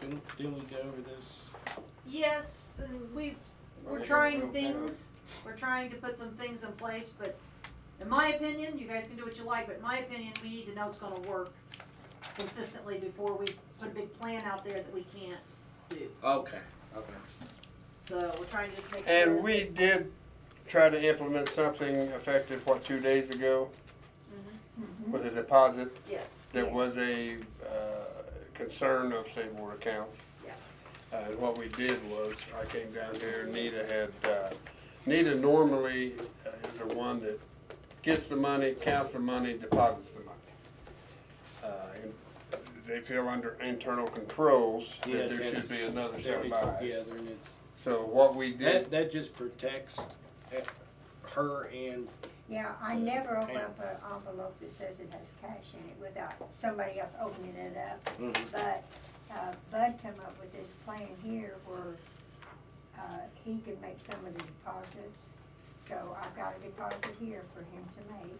Didn't, didn't we go over this? Yes, and we, Well, we're they trying don't go fast. things, we're trying to put some things in place, but in my opinion, you guys can do what you like, but in my opinion, we need to know it's gonna work consistently before we put a big plan out there that we can't do. Okay, okay. So we're trying to just make sure. And we did try to implement something effective, what, two days ago? Mhm. With a deposit Yes. that was a, uh, concern of state board accounts. Yeah. Uh, and what we did was, I came down here, Nita had, uh, Nita normally uh, is the one that gets the money, counts the money, deposits the money. Uh, and they feel under internal controls Yeah, that there should that's- be another there set of it's- Yeah, eyes. there it is. So what we That, did, that just protects eh, her and, Yeah, I never open Yeah. up an envelope that says it has cash in it without somebody else opening it up. Mhm. But, uh, Bud come up with this plan here where, uh, he could make some of the deposits. So I've got a deposit here for him to make,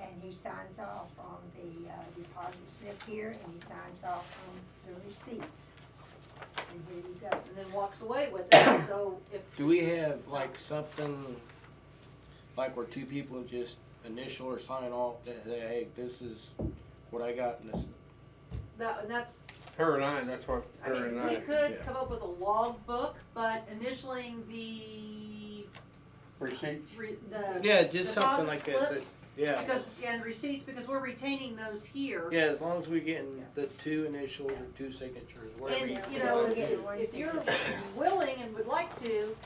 and he signs off on the, uh, deposit slip here, and he signs off on the receipts. And here you go. And then walks away with it, so if, do we have like something, like where two people just initial or sign off that, that, hey, this is what I got and this. that, and that's her and I, that's what I her mean, and we I could yeah. come up with a logbook, but initialing the, receipts. re- the. Yeah, just something deposit like that, that, slips, yeah. Because, and receipts, because we're retaining those here. Yeah, as long as we getting the two initials or two signatures, whatever. And, you you know, can decide to do. get one if you're willing and would like to,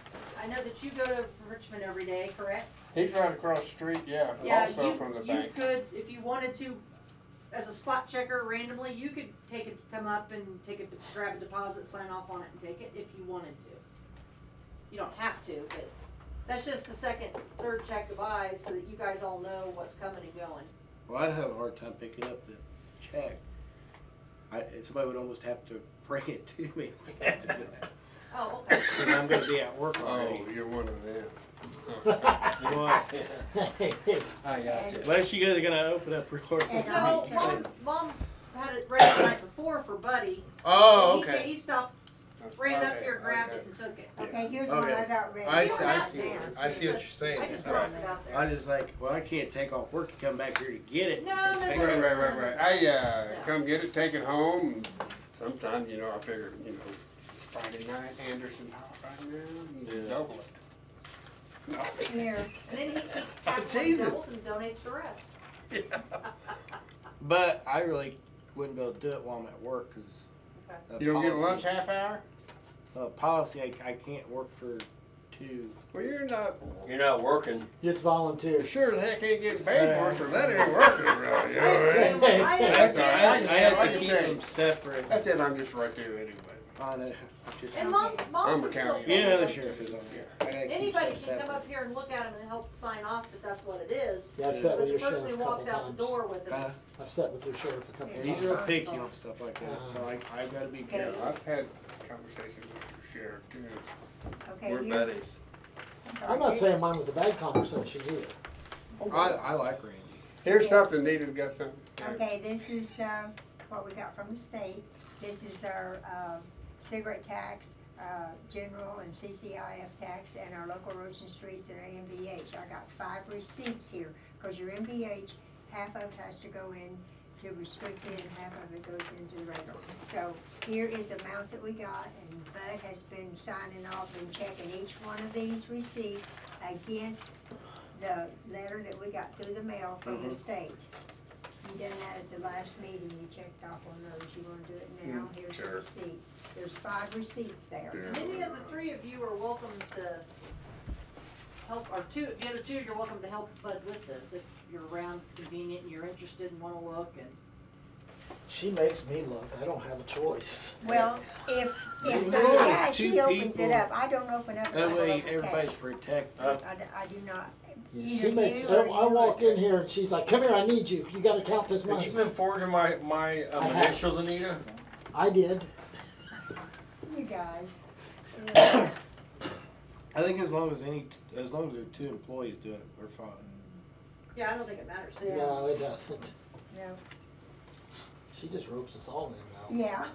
I know that you go to Richmond every day, correct? He's right across the street, yeah, Yeah, also you- from the bank. You could, if you wanted to, as a spot checker randomly, you could take it, come up and take it, grab a deposit, sign off on it and take it if you wanted to. You don't have to, but that's just the second, third check of eyes so that you guys all know what's coming and going. Well, I'd have a hard time picking up the check. I, and somebody would almost have to bring it to me. if we had to do that. Oh, okay. 'Cause I'm gonna be at work Oh, already. you're one of them. Boy, I got you. Oh, Unless you guys are gonna open up real quick. And So, mom, mom had it ready the night before for Buddy. Oh, He- okay. He stopped, ran up here, grabbed it and took it. Okay, here's one I Okay. got ready. I You see, were I not see, there, I see what you're but saying. I just All right. tossed it out there. I just like, well, I can't take off work to come back here to get it. No, no, Take no. it. Right, right, right, right. I, uh, come get it, take it home. Sometimes, you know, I figure, you know, it's Friday night, Anderson hot right now, and Yeah. double it. No. Here. And then he half one Jesus. doubles and donates the rest. But I really wouldn't be able to do it while I'm at work, cause. of You don't get policy- lunch half hour? Uh, policy, I, I can't work for two. Well, you're not, You're not working. It's volunteer. you sure the heck ain't getting paid for it, so that ain't working right, you know what I mean? I That's all I right. understand. have, I have Like you to keep say. them separate I said I'm just right there anyway. on it. Just- And mom, I'm mom. a just county looked Yeah, at another it. sheriff is on here. I gotta keep Anybody stuff can come separate. up here and look at him and help sign off that that's what it is. Yeah, I've sat But with the your person who sheriff a couple walks out the times. door with Uh, it is, I've sat with your sheriff a couple Yeah. times. These are picky on stuff like that, so I, I've gotta be Yeah, careful. I've had conversations with your sheriff too. Okay, We're here's- buddies. I'm not saying mine was a bad conversation either. I, I like Randy. Here's something, Nita's got something. Okay, this is, uh, what we got from the state. This is our, uh, cigarette tax, uh, general and CCIF tax, and our local roads and streets and our MVH. I got five receipts here, cause your MVH, half of it has to go in to restricted and half of it goes into the regular. So here is the amounts that we got, and Bud has been signing off and checking each one of these receipts against the letter that we got through the mail from the Mm-hmm. state. You done that at the last meeting, you checked off on those, you wanna do it now, Mm-hmm. here's the sure. receipts, there's five receipts there. Yeah. any of the three of you are welcome to help, or two, the other two, you're welcome to help Bud with this. If you're around, it's convenient, and you're interested and wanna look and. She makes me look. I don't have a choice. Well, if, if As the long as guy, two he opens it people- up, I don't open up. That my way little everybody's cake. protected. Uh, I, d- I do not, either She makes. you I or you. I walk in here and she's like, "Come here, I need you. You got to count this Have you money." been forging my, my I um, have. initials, Anita? I did. You guys. Yeah. I think as long as any, as long as there are two employees doing it, we're fine. Yeah, I don't think it matters. Yeah. No, it doesn't. No. She just ropes us all in now. Yeah.